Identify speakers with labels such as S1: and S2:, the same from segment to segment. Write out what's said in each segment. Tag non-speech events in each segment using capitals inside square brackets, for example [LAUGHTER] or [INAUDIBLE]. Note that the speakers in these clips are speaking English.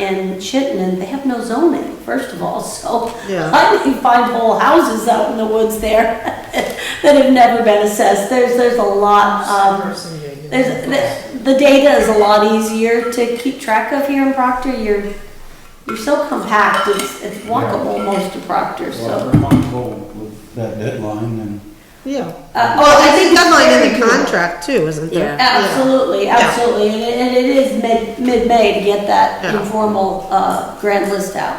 S1: in Chittenden, they have no zoning, first of all, so
S2: Yeah.
S1: I may find whole houses out in the woods there [LAUGHS] that have never been assessed. There's, there's a lot of, Um, there's, the, the data is a lot easier to keep track of here in Proctor. You're, you're so compact, it's, it's walkable most of Proctor,
S3: Well,
S1: so.
S3: I'm comfortable with that deadline and
S2: Yeah.
S1: Uh,
S2: Well, I think
S1: it's
S2: that's not in
S1: very
S2: the
S1: doable.
S2: contract too, isn't there?
S1: Absolutely,
S2: Yeah.
S1: absolutely, and it, and it is mid, mid-May to get that
S2: Yeah.
S1: informal, uh, grand list out,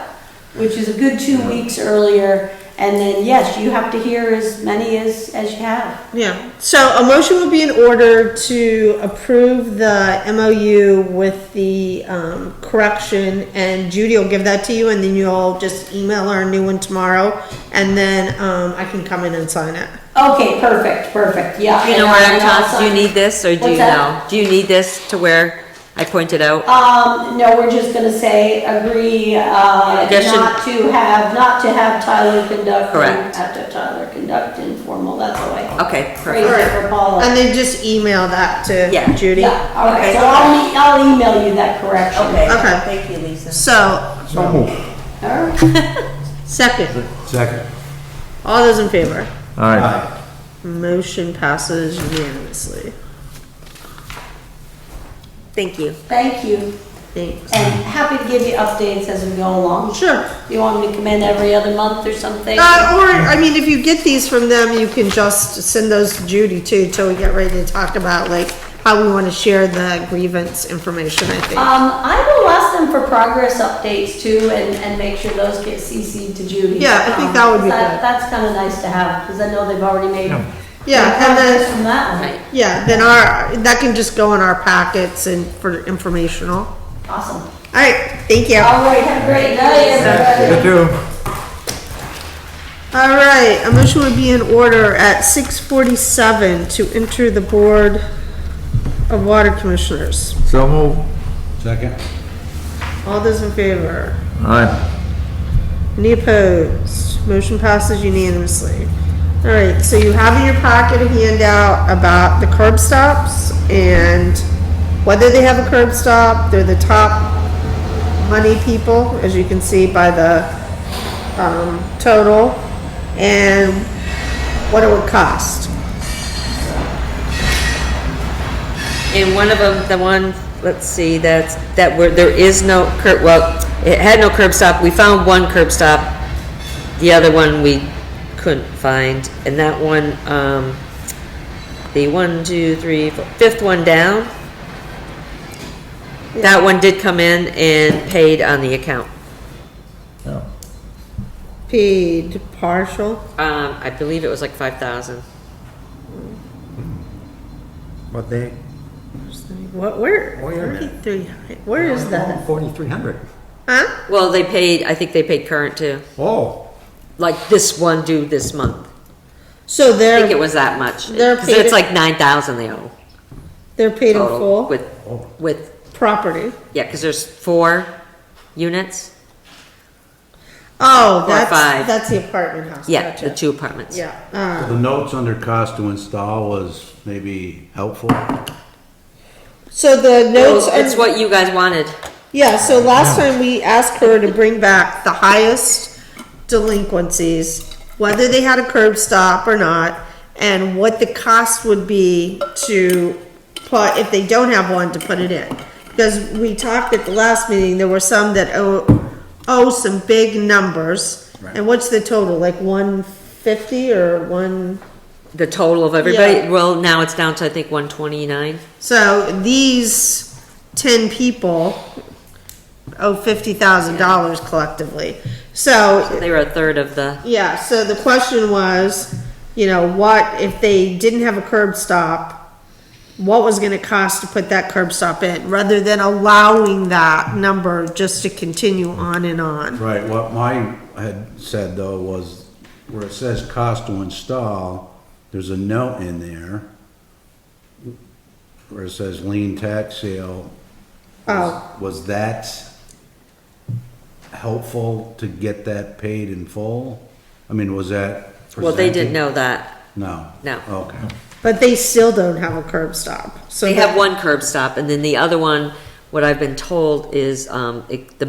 S1: which is a good two weeks earlier, and then, yes, you have to hear as many as, as you have.
S2: Yeah. So a motion would be in order to approve the MOU with the um, correction, and Judy will give that to you, and then you'll just email her a new one tomorrow, and then um, I can come in and sign it.
S1: Okay, perfect, perfect, yeah.
S4: Do you know
S1: and
S4: what
S1: I-
S4: I'm
S1: and
S4: talking, do you
S1: also-
S4: need this, or do
S1: What's
S4: you
S1: that?
S4: know? Do you need this to where I pointed out?
S1: Um, no, we're just gonna say, agree, uh,
S4: That should-
S1: not to have, not to have Tyler conduct.
S4: Correct.
S1: Have to Tyler conduct informal, that's the way.
S4: Okay,
S1: Phrase
S4: perfect.
S1: it for Paula.
S2: And then just email that
S4: Yeah.
S2: to Judy.
S1: Yeah, all right,
S4: Okay.
S1: so I'll, e- I'll email you that correction.
S2: Okay.
S4: thank you, Lisa.
S2: So,
S1: All right.
S2: second,
S3: Second.
S2: all those in favor?
S5: All right.
S3: Aye.
S2: Motion passes unanimously.
S4: Thank you.
S1: Thank you,
S2: Thanks.
S1: and happy to give you updates as we go along.
S2: Sure.
S1: You want me to come in every other month or something?
S2: Uh, or, I mean, if you get these from them, you can just send those to Judy too, till we get ready to talk about like how we wanna share the grievance information, I think.
S1: Um, I will ask them for progress updates too, and, and make sure those get CC'd to Judy.
S2: Yeah, I think
S1: Um,
S2: that would be good.
S1: That's kinda nice to have, because I know they've already made.
S2: Yeah, and
S1: progress
S2: then,
S1: From that one,
S2: yeah, then our, that can just go in our packets and for informational.
S1: awesome.
S2: Alright, thank you.
S1: All right, have a great night, everybody.
S5: You too.
S2: All right, a motion would be in order at six forty-seven to enter the Board of Water Commissioners.
S5: So move.
S3: Second.
S2: All those in favor?
S5: All right.
S2: Any opposed? Motion passes unanimously. All right, so you have in your pocket a handout about the curb stops and whether they have a curb stop. They're the top money people, as you can see by the, um, total, and what it would cost.
S4: And one of them, the one, let's see, that's, that where, there is no curb, well, it had no curb stop, we found one curb stop. The other one we couldn't find, and that one, um, the one, two, three, four, fifth one down. That one did come in and paid on the account.
S5: Yeah.
S2: Paid partial.
S4: Um, I believe it was like five thousand.
S6: What they,
S2: What, where?
S6: Oh, Wait a minute.
S2: Thirty-three, where is that?
S6: forty-three hundred?
S2: Huh?
S4: Well, they paid, I think they paid current too,
S6: Oh,
S4: like this one due this month.
S2: So
S4: I think it
S2: they're,
S4: was that much.
S2: They're
S4: 'Cause it's
S2: paid-
S4: like nine thousand they owe.
S2: they're paid in
S4: total
S2: full
S4: With, with,
S2: property.
S4: yeah, because there's four units,
S2: Oh,
S4: Or
S2: that's,
S4: five.
S2: that's the apartment house.
S4: yeah, the
S2: Gotcha.
S4: two apartments.
S2: Yeah, uh,
S3: The notes under cost to install was maybe helpful.
S2: so the notes,
S4: Well,
S2: are-
S4: It's what you guys wanted.
S2: yeah, so last time we asked her to bring back the highest delinquencies, whether they had a curb stop or not, and what the cost would be to put, if they don't have one, to put it in. Because we talked at the last meeting, there were some that owe, owe some big numbers. And what's the total, like one fifty or one?
S4: The total of everybody,
S2: Yeah.
S4: well, now it's down to, I think, one twenty-nine.
S2: So these ten people owe fifty thousand dollars collectively. So,
S4: They were a third of the,
S2: yeah, so the question was, you know, what, if they didn't have a curb stop, what was gonna cost to put that curb stop in, rather than allowing that number just to continue on and on?
S3: Right, what mine had said though was where it says cost to install, there's a note in there where it says lien tax sale.
S2: Oh.
S3: Was that helpful to get that paid in full? I mean, was that presented?
S4: well, they didn't know that.
S3: No?
S4: No.
S3: Okay.
S2: But they still don't have a curb stop, so.
S4: They
S2: that-
S4: have one curb stop, and then the other one, what I've been told is, um, it- the